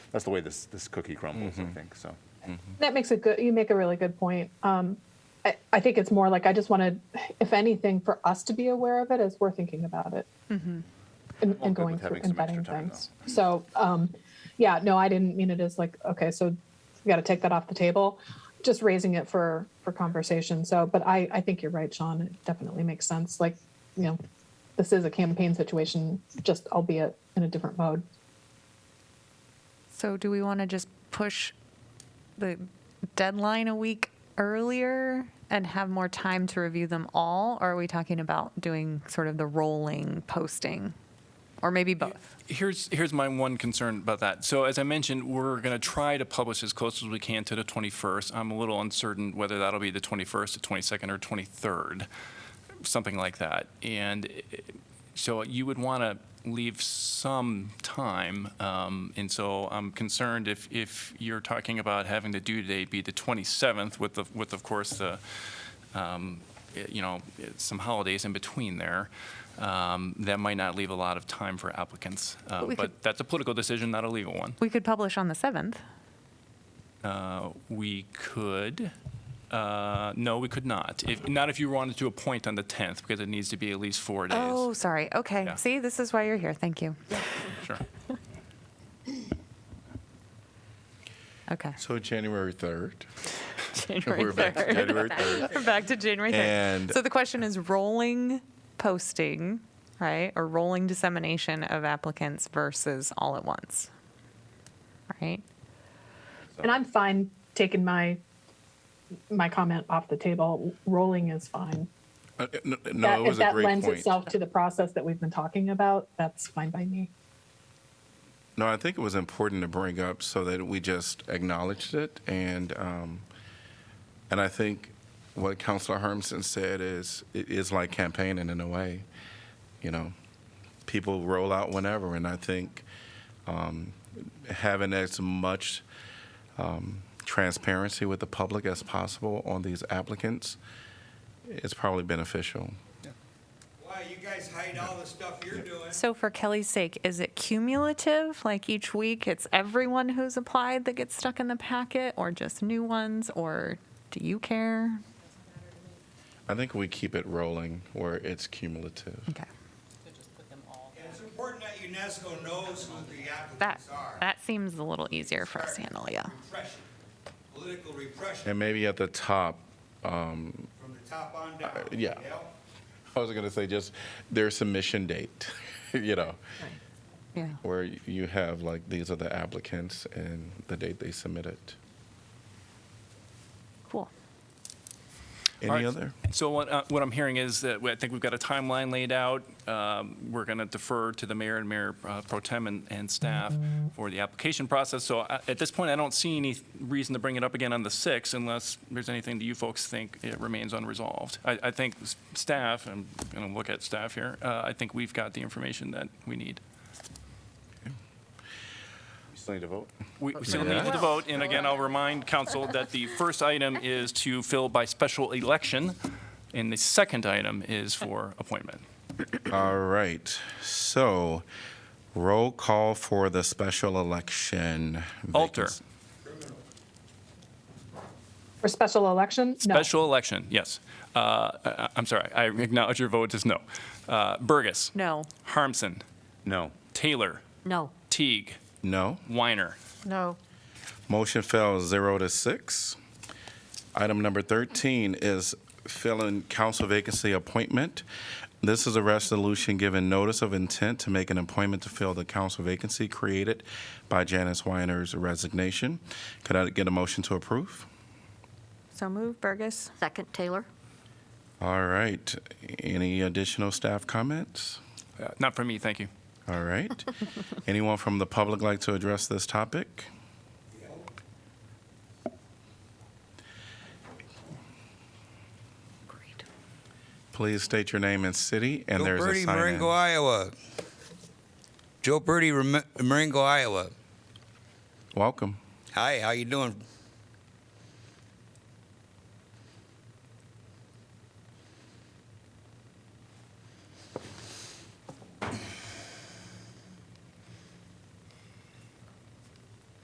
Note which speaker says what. Speaker 1: that's the way this this cookie crumbles. I think so.
Speaker 2: That makes a good. You make a really good point. Um, I, I think it's more like I just wanted, if anything, for us to be aware of it as we're thinking about it and,
Speaker 1: All good
Speaker 2: and going
Speaker 1: with
Speaker 2: through
Speaker 1: having
Speaker 2: and
Speaker 1: some extra
Speaker 2: vetting
Speaker 1: time,
Speaker 2: things. So, um, yeah, no, I didn't mean it as like okay, so we got to take that off the table. Just raising it for for conversation. So, but I I think you're right, Sean. It definitely makes sense. Like you know, this is a campaign situation, just albeit in a different mode.
Speaker 3: So do we want to just push the deadline a week earlier and have more time to review them all? Or are we talking about doing sort of the rolling posting? Or maybe both?
Speaker 4: Here's here's my one concern about that. So as I mentioned, we're going to try to publish as close as we can to the 21st. I'm a little uncertain whether that'll be the 21st, the 22nd, or 23rd, something like that. And eh, so you would want to leave some time. Um, and so I'm concerned if if you're talking about having the due date be the 27th, with the, with of course the um, it- you know, it- some holidays in between there, um, that might not leave a lot of time for applicants. Uh,
Speaker 3: we
Speaker 4: But
Speaker 3: could-
Speaker 4: that's a political decision, not a legal one.
Speaker 3: We could publish on the 7th.
Speaker 4: Uh, We could, uh, no, we could not. If, not if you wanted to appoint on the 10th, because it needs to be at least four
Speaker 3: Oh,
Speaker 4: days.
Speaker 3: sorry. Okay.
Speaker 4: Yeah.
Speaker 3: See, this is why you're here. Thank you.
Speaker 4: Sure.
Speaker 3: Okay.
Speaker 5: So January 3rd.
Speaker 3: January
Speaker 5: We're back to
Speaker 3: 3rd.
Speaker 5: January 3rd.
Speaker 3: We're back to January 3rd.
Speaker 5: And-
Speaker 3: so the question is rolling posting, right? Or rolling dissemination of applicants versus all at once, right?
Speaker 2: And I'm fine taking my my comment off the table. Rolling is fine.
Speaker 5: Uh, n- n-
Speaker 2: that,
Speaker 5: No, it
Speaker 2: if
Speaker 5: was a
Speaker 2: that
Speaker 5: great
Speaker 2: lends
Speaker 5: point.
Speaker 2: itself to the process that we've been talking about, that's fine by me.
Speaker 5: No, I think it was important to bring up so that we just acknowledged it. And, um, and I think what Councilor Hermson said is, it is like campaigning in a way. You know, people roll out whenever. And I think um, having as much um, transparency with the public as possible on these applicants is probably beneficial.
Speaker 6: Why, you guys hide all the stuff you're doing.
Speaker 3: So for Kelly's sake, is it cumulative? Like each week it's everyone who's applied that gets stuck in the packet or just new ones or do you care?
Speaker 5: I think we keep it rolling where it's cumulative.
Speaker 3: Okay.
Speaker 6: And it's important that UNESCO knows who the
Speaker 3: That
Speaker 6: applicants are.
Speaker 3: that seems a little easier for us to handle, yeah.
Speaker 6: Repression, political repression
Speaker 5: And maybe at the top,
Speaker 6: from the top on down.
Speaker 5: uh, yeah. I was going to say just their submission date, you know,
Speaker 3: Yeah.
Speaker 5: where you have like these are the applicants and the date they submitted.
Speaker 3: Cool.
Speaker 5: Any
Speaker 4: All right.
Speaker 5: other?
Speaker 4: So what, uh, what I'm hearing is that we- I think we've got a timeline laid out. Um, We're going to defer to the mayor and mayor uh, pro tem and, and staff for the application process. So I- at this point, I don't see any reason to bring it up again on the 6th unless there's anything that you folks think it remains unresolved. I, I think s- staff, I'm going to look at staff here, uh, I think we've got the information that we need.
Speaker 1: You still need to vote.
Speaker 4: We we still need to vote, and again, I'll remind council that the first item is to fill by special election, and the second item is for appointment.
Speaker 5: All right. So roll call for the special election.
Speaker 4: Alter.
Speaker 5: Vacancy-
Speaker 2: For special election,
Speaker 4: Special election, yes. Uh, I- I'm sorry, I acknowledge your vote is no. Uh, Burgess.
Speaker 3: No.
Speaker 4: Harmson.
Speaker 1: No.
Speaker 4: Taylor.
Speaker 3: No.
Speaker 4: Teague.
Speaker 5: No.
Speaker 4: Weiner.
Speaker 3: No.
Speaker 5: Motion fails zero to six. Item number 13 is filling council vacancy appointment. This is a resolution giving notice of intent to make an appointment to fill the council vacancy created by Janice Weiner's resignation. Could I get a motion to approve?
Speaker 3: So move Burgess.
Speaker 7: Second, Taylor?
Speaker 5: All right. Any additional staff comments?
Speaker 4: Uh, Not for me, thank you.
Speaker 5: All right. Anyone from the public like to address this topic?
Speaker 7: Great.
Speaker 5: Please state your name and city, and
Speaker 6: Joe
Speaker 5: there's a
Speaker 6: Birdie,
Speaker 5: sign
Speaker 6: Marengo, Iowa. Joe Birdie, Rem- Marengo, Iowa.
Speaker 5: Welcome.
Speaker 6: Hi, how you doing?